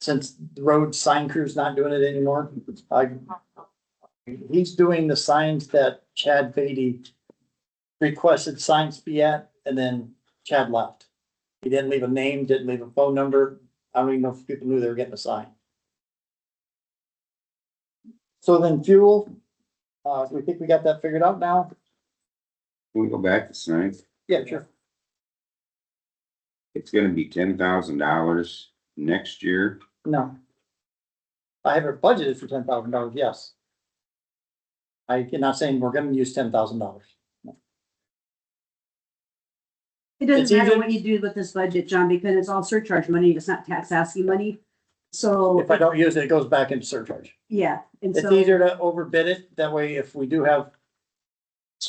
since the road sign crew's not doing it anymore, I. He's doing the signs that Chad Beatty requested signs be at, and then Chad left. He didn't leave a name, didn't leave a phone number. I don't even know if people knew they were getting a sign. So then fuel, uh, we think we got that figured out now? Can we go back to signs? Yeah, sure. It's gonna be ten thousand dollars next year. No. I have it budgeted for ten thousand dollars, yes. I cannot saying we're gonna use ten thousand dollars. It It's doesn't matter either- what you do with this budget, John, because it's all surcharge money, it's not tax asking money. So, If I don't use it, it goes back into surcharge. yeah, and It's so, easier to overbid it. That way, if we do have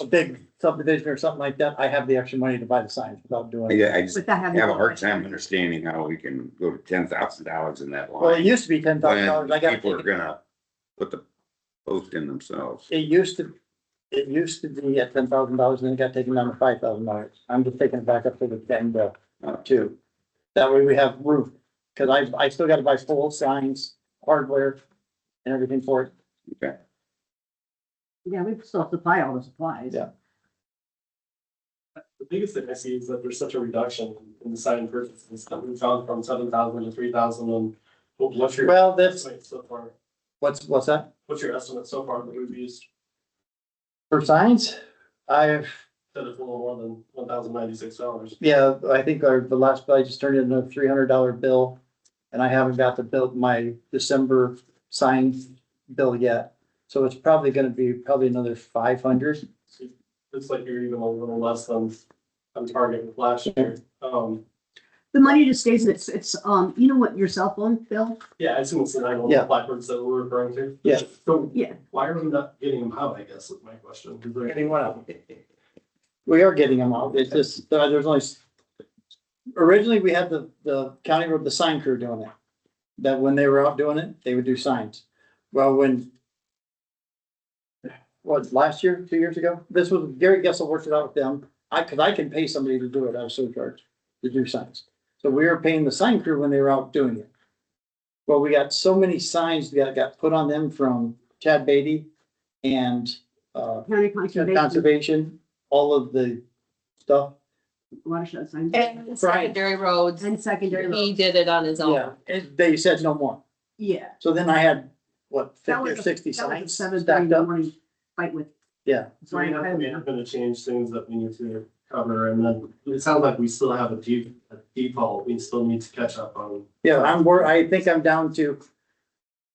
a big subdivision or something like that, I have the extra money to buy the signs without doing it. I, I just without having. have a hard time understanding how we can go to ten thousand dollars in that Well, it line. used to be ten thousand dollars. I When got. people are gonna put the post in themselves. It used to, it used to be at ten thousand dollars and then it got taken down to five thousand dollars. I'm just taking it back up to the ten bill, uh, two. That way we have roof, cause I, I still gotta buy full signs, hardware and everything for it. Okay, Yeah, we still have to buy all the supplies. Yeah. The biggest thing I see is that there's such a reduction in the sign purchases that we found from seven thousand to three thousand and what- what's your Well, that's, estimate so far? what's, what's that? What's your estimate so far that we've used For signs, I've, that is a little more than one thousand ninety-six dollars? yeah, I think our, the last bill, I just turned in a three hundred dollar bill. And I haven't got the bill, my December signs bill yet. So it's probably gonna be probably another five hundred. Looks like you're even a little less than on target with last year. Um, The money just stays, it's, it's, um, you know what, your cell phone bill? yeah, I assume it's the nine one Yeah. one blackbirds that we're referring to. Yeah. So Yeah. why are we not getting them out, I guess, is my question. Is there- Getting what out? We are getting them out. It's just, uh, there's only. s- Originally, we had the, the county road, the sign crew doing it. That when they were out doing it, they would do signs. Well, when. What, last year, two years ago? This was Gary Gessel worked it out with them. I, cause I can pay somebody to do it out of surcharge, to do signs. So we were paying the sign crew when they were out doing it. Well, we got so many signs that got put on them from Chad Beatty and, uh, County conservation, conservation, all of the stuff. watershed signs, And secondary roads, and secondary, he roads. did it on his Yeah, own. and they said no more. yeah. So then I had, what, That fifty was or sixty signs Seven stacked thirty in the up? morning fight with. Yeah. So we have, we have to change things that we need to cover, and then it sounds like we still have a deep, a default, we still need to catch up on. Yeah, I'm, wor- I think I'm down to,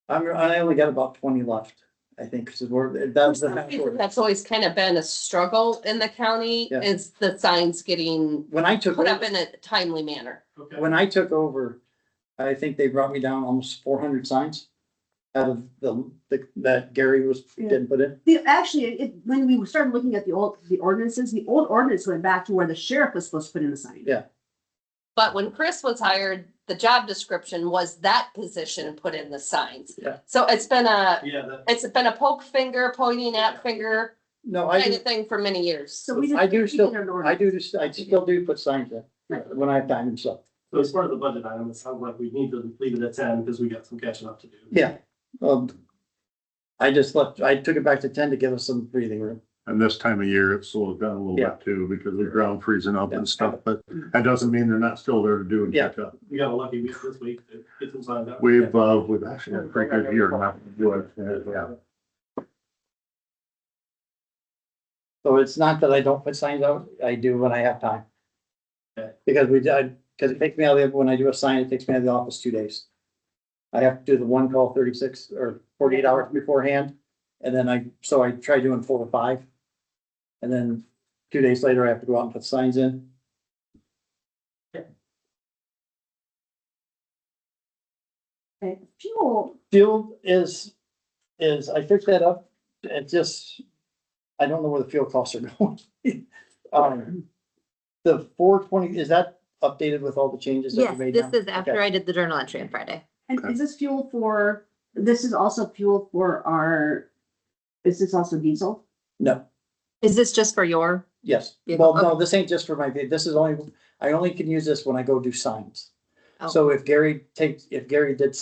I'm, I only got about twenty left, I think, because we're, that's the. half order. That's always kind of been a struggle in the county Yeah. is the signs getting When I took, put up over- in a timely manner. Okay. when I took over, I think they brought me down almost four hundred signs out of the, the- that Gary was, Yeah. didn't put in. The, actually, it, when we started looking at the old, the ordinances, the old ordinance went back to where the sheriff was supposed to put in the sign. Yeah. But when Chris was hired, the job description was that position put in the signs. Yeah. So it's been a, Yeah, that, it's been a poke finger, pointing at finger No, I, kind do- of thing for many years. So we just. I do we did still- an I ordinance. do, just- I still do put signs in Right. when I have time and stuff. so as part of the budget item, it sounds like we need to leave it at ten, because we got some catching up to do. Yeah, um, I just left, I took it back to ten to give us some breathing room. And this time of year, it slowed down a little Yeah. bit too, because the ground freezing up Yeah. and stuff, but that doesn't mean they're not still there to do and Yeah. catch up. We got a lucky week this week to get some signed up. We've, uh, we've actually had a pretty good year, not good, yeah. So it's not that I don't put signs out, I do when I have time. Okay. Because we, I, because it takes me out of, the when I do a sign, it takes me out of the office two days. I have to do the one call thirty-six or forty-eight hours beforehand, and then I, so I try doing four or five. And then two days later, I have to go out and put signs in. Okay. Fuel, Field is, is, I picked that up, it just, I don't know where the fuel costs are going. Um, the four twenty, is that updated with all the changes that Yes, we made this now? is after Okay. I did the journal entry on Friday. and Okay. is this fuel for, this is also fuel for our, is this also diesel? No, Is this just for your? yes, Yeah, well, no, okay. this ain't just for my, vehi- this is only, I only can use this when I go do signs. Oh. So if Gary takes, if Gary did